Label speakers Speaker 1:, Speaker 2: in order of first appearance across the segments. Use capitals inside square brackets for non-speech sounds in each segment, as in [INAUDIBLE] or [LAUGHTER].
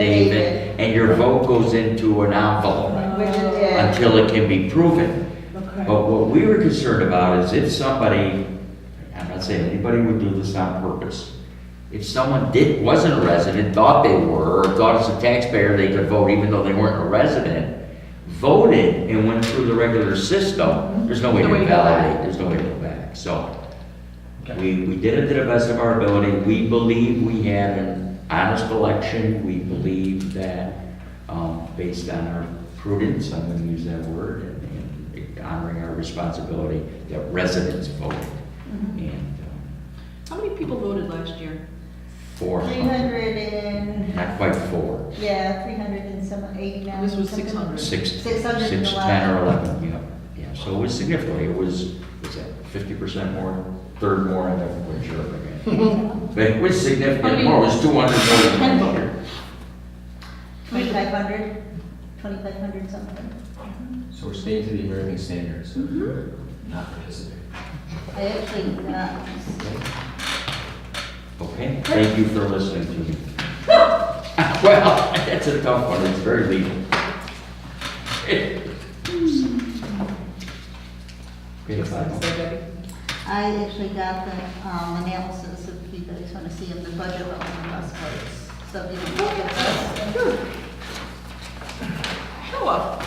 Speaker 1: affidavit, and your vote goes into an envelope
Speaker 2: Which it did.
Speaker 1: until it can be proven.
Speaker 3: Okay.
Speaker 1: But what we were concerned about is if somebody, I'm not saying anybody would do this on purpose, if someone did, wasn't a resident, thought they were, or thought as a taxpayer they could vote even though they weren't a resident, voted and went through the regular system, there's no way to
Speaker 3: Mm-hmm. No way to go
Speaker 1: validate,
Speaker 3: back.
Speaker 1: there's no way to go back, so.
Speaker 4: Okay.
Speaker 1: We, we did it to the best of our ability, we believe we had an honest election, we believe that, um, based on our prudence, I'm gonna use that word, and- and honoring our responsibility, that residents voted.
Speaker 3: Mm-hmm.
Speaker 1: And, um,
Speaker 3: How many people voted last year?
Speaker 1: four,
Speaker 2: Three hundred and,
Speaker 1: not quite four,
Speaker 2: yeah, three hundred and some, eighty nine.
Speaker 3: This was
Speaker 2: something.
Speaker 3: 600.
Speaker 1: Six, six,
Speaker 2: Six hundred and
Speaker 1: ten or
Speaker 2: eleven.
Speaker 1: eleven, yeah, yeah, so it was significantly, it was, was that fifty percent more, third more, I never quite sure
Speaker 2: [LAUGHS]
Speaker 1: again. But it was
Speaker 3: How
Speaker 1: significant
Speaker 3: many-
Speaker 1: more, it was two hundred
Speaker 3: Ten
Speaker 1: more
Speaker 3: voted.
Speaker 2: Twenty-five hundred, twenty-five hundred something.
Speaker 4: So we're staying to the American standards, of
Speaker 2: Mm-hmm.
Speaker 4: not participate.
Speaker 2: I actually, uh,
Speaker 1: Okay, thank you for listening to me. [LAUGHS] Well, that's a tough one, it's very legal. [LAUGHS]
Speaker 2: Mm-hmm.
Speaker 1: Okay, fine.
Speaker 2: I actually got the um, analysis, if you guys want to see of the budget of the bus routes. So if you can look at this.
Speaker 3: Hello.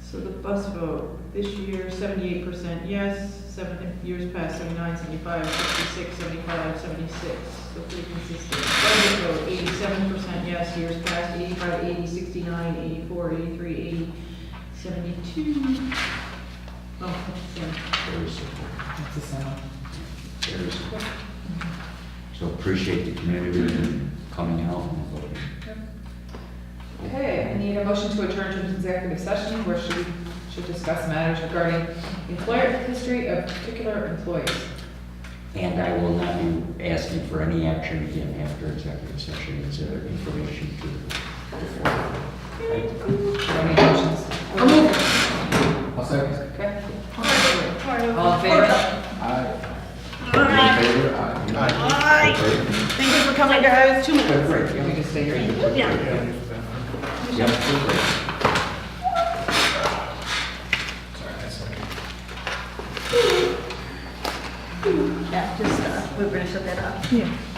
Speaker 5: So the bus vote, this year seventy-eight percent yes, seven, years past 79, 75, 66, 75, 76. So pretty consistent. Budget vote, eighty-seven percent yes, years past 85, 80, 69, 84, 83, 80, 72. Oh, that's the same.
Speaker 1: Very simple. Very simple. So appreciate the community coming out and voting.
Speaker 6: Okay, I need a motion to adjourn to executive session where she should discuss matters regarding employer history of particular employees.
Speaker 1: And I will not be asking for any action again after executive session, it's uh, information to the board.
Speaker 6: Any motions?
Speaker 4: I'll second.
Speaker 6: Okay. All in favor?
Speaker 4: Aye. All in favor? Aye.
Speaker 1: Good, great,
Speaker 6: Can
Speaker 1: yeah.
Speaker 6: we just stay here?
Speaker 1: Yep, good, great.
Speaker 4: Sorry, I second.
Speaker 2: Yeah, just, uh, we're going to shut that up.
Speaker 5: Yeah.